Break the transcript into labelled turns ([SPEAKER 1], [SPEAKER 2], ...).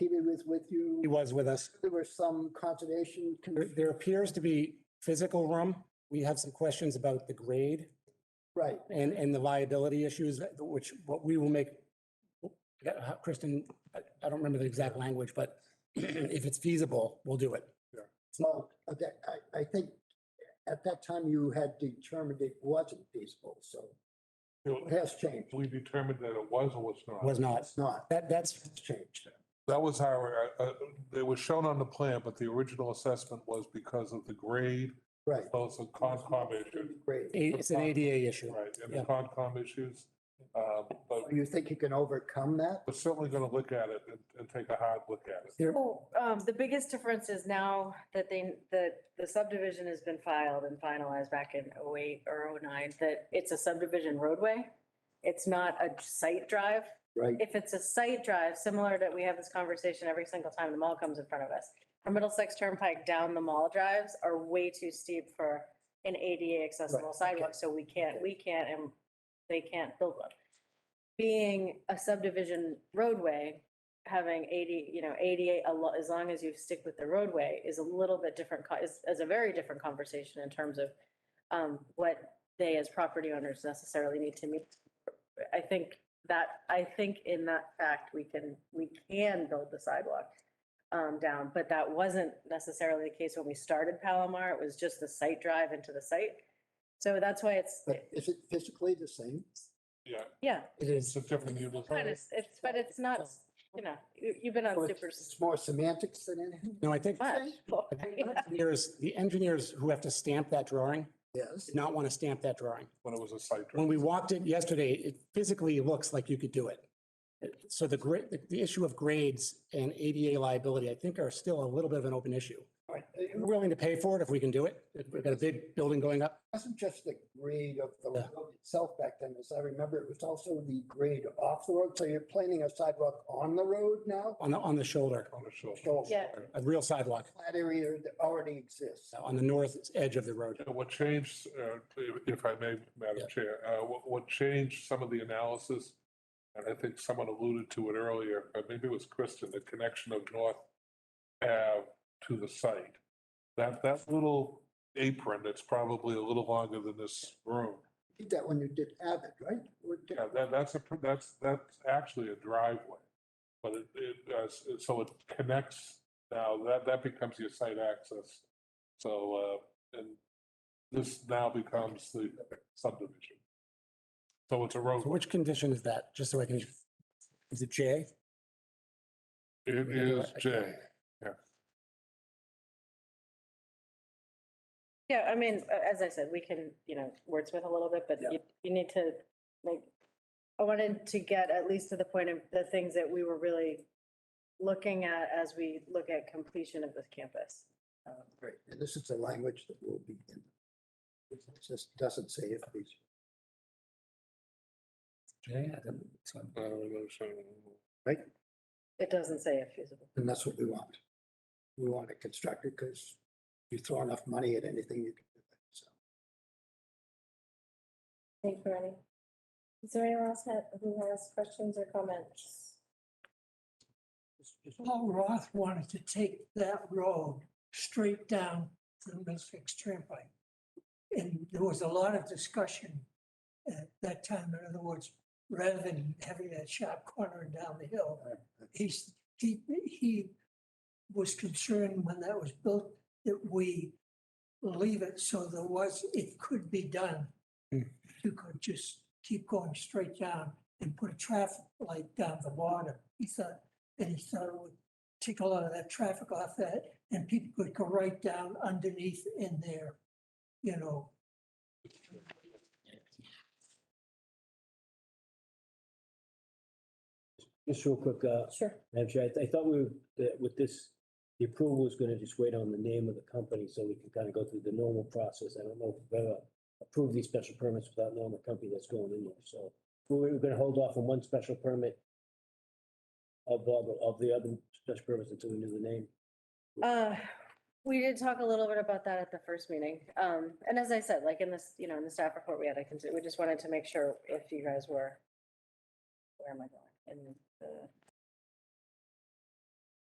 [SPEAKER 1] was with
[SPEAKER 2] He
[SPEAKER 1] you.
[SPEAKER 2] was with us.
[SPEAKER 1] There was some conservation. con-
[SPEAKER 2] There, there appears to be physical room. We have some questions about the grade
[SPEAKER 1] Right,
[SPEAKER 2] and, and the liability issues, that- which, what we will make, Yeah, uh, Kristen, I I don't remember the exact language, but if it's feasible, we'll do it.
[SPEAKER 1] so uh, that, I, I think at that time you had determined it wasn't feasible, so it
[SPEAKER 3] We
[SPEAKER 1] has changed.
[SPEAKER 3] determined that it was or was not.
[SPEAKER 2] Was not.
[SPEAKER 1] It's not,
[SPEAKER 2] That, that's,
[SPEAKER 1] it's changed.
[SPEAKER 3] That was our, uh, uh, it was shown on the plan, but the original assessment was because of the grade,
[SPEAKER 1] Right.
[SPEAKER 3] both the Concom issue.
[SPEAKER 1] Great.
[SPEAKER 2] a- it's an ADA issue.
[SPEAKER 3] Right, and the
[SPEAKER 2] Yeah.
[SPEAKER 3] Concom issues. Uh, But
[SPEAKER 1] You think you can overcome that?
[SPEAKER 3] we're certainly going to look at it and- and take a hard look at it.
[SPEAKER 2] There,
[SPEAKER 4] Oh, um, the biggest difference is now that they, that the subdivision has been filed and finalized back in oh eight or oh nine, that it's a subdivision roadway. It's not a site drive.
[SPEAKER 1] Right,
[SPEAKER 4] If it's a site drive, similar that we have this conversation every single time the mall comes in front of us. Our Middlesex Turnpike down the mall drives are way too steep for an ADA accessible
[SPEAKER 1] Right, okay.
[SPEAKER 4] sidewalk, so we can't, we can't, and they can't build one. Being a subdivision roadway, having eighty, you know, ADA, a lot, as long as you stick with the roadway, is a little bit different, co- is, is a very different conversation in terms of um, what they as property owners necessarily need to meet. I think that, I think in that fact, we can, we can build the sidewalk um, down, but that wasn't necessarily the case when we started Palomar. It was just the site drive into the site. So that's why it's,
[SPEAKER 1] but is it physically the same?
[SPEAKER 3] Yeah,
[SPEAKER 4] yeah,
[SPEAKER 1] It
[SPEAKER 3] it's a different
[SPEAKER 4] kind
[SPEAKER 3] utilization.
[SPEAKER 4] of, it's, but it's not, you know, you, you've been
[SPEAKER 1] So
[SPEAKER 4] on
[SPEAKER 1] It's
[SPEAKER 4] super.
[SPEAKER 1] it's more semantics than anything?
[SPEAKER 2] no, I think
[SPEAKER 4] much.
[SPEAKER 2] engineers, the engineers who have to stamp that drawing
[SPEAKER 1] Yes.
[SPEAKER 2] did not want to stamp that drawing.
[SPEAKER 3] When it was a site.
[SPEAKER 2] When
[SPEAKER 3] drive.
[SPEAKER 2] we walked it yesterday, it physically looks like you could do it. So the grade, the issue of grades and ADA liability, I think are still a little bit of an open issue.
[SPEAKER 1] Right.
[SPEAKER 2] We're
[SPEAKER 1] It
[SPEAKER 2] willing to pay for it if we can do it. We've got a big building going up.
[SPEAKER 1] wasn't just the grade of the
[SPEAKER 2] Yeah.
[SPEAKER 1] road itself back then, as I remember, it was also the grade off the road. So you're planning a sidewalk on the road now?
[SPEAKER 2] on the, on the shoulder,
[SPEAKER 3] On the shoulder.
[SPEAKER 1] So
[SPEAKER 4] Yeah.
[SPEAKER 2] a real sidewalk
[SPEAKER 1] flat area that already exists.
[SPEAKER 2] on the north edge of the road.
[SPEAKER 3] Yeah, What changed, uh, if if I may,
[SPEAKER 2] Yeah.
[SPEAKER 3] Madam Chair, uh, what what changed some of the analysis, and I think someone alluded to it earlier, or maybe it was Kristen, the connection of North Ave to the site. That, that little apron that's probably a little longer than this room,
[SPEAKER 1] You Did that when you did Abbott, right? Or did-
[SPEAKER 3] yeah, that, that's a, that's, that's actually a driveway. But it, it, uh, s- so it connects now, that, that becomes your site access. So, uh, and this now becomes the subdivision. So it's a
[SPEAKER 2] So
[SPEAKER 3] road.
[SPEAKER 2] which condition is that? Just so I can, is it J?
[SPEAKER 3] It is J.
[SPEAKER 4] Yeah, I mean, a- as I said, we can, you know, wordsmith a little bit, but you, you need to, like, I wanted to get at least to the point of the things that we were really looking at as we look at completion of this campus.
[SPEAKER 1] Uh, Great. And this is the language that will be in. It just doesn't say if these.
[SPEAKER 2] J.
[SPEAKER 3] Uh, so-
[SPEAKER 4] It doesn't say if feasible.
[SPEAKER 1] And that's what we want. We want to construct it because you throw enough money at anything, you can do it. So
[SPEAKER 5] Thank you, Rennie. Is there anyone else ha- who has questions or comments?
[SPEAKER 6] If Paul Roth wanted to take that road straight down to the Middlesex Turnpike. And there was a lot of discussion at that time, in other words, rather than having that sharp corner and down the hill. He's, he, he was concerned when that was built that we leave it so there was, it could be done.
[SPEAKER 2] Hmm.
[SPEAKER 6] You could just keep going straight down and put a traffic light down the bottom. He thought and he thought it would take a lot of that traffic off that, and people could go right down underneath in there, you know,
[SPEAKER 7] Just real quick, uh,
[SPEAKER 5] Sure.
[SPEAKER 7] Madam Chair, I th- I thought we, were- that with this, the approval was gonna just wait on the name of the company so we can kind of go through the normal process. I don't know if we've ever approved these special permits without knowing the company that's going in there, so we we're gonna hold off on one special permit of all the, of the other special permits until we knew the name.
[SPEAKER 4] Uh, we did talk a little bit about that at the first meeting. Um, and as I said, like in this, you know, in the staff report we had, I can, we just wanted to make sure if you guys were, where am I going? In the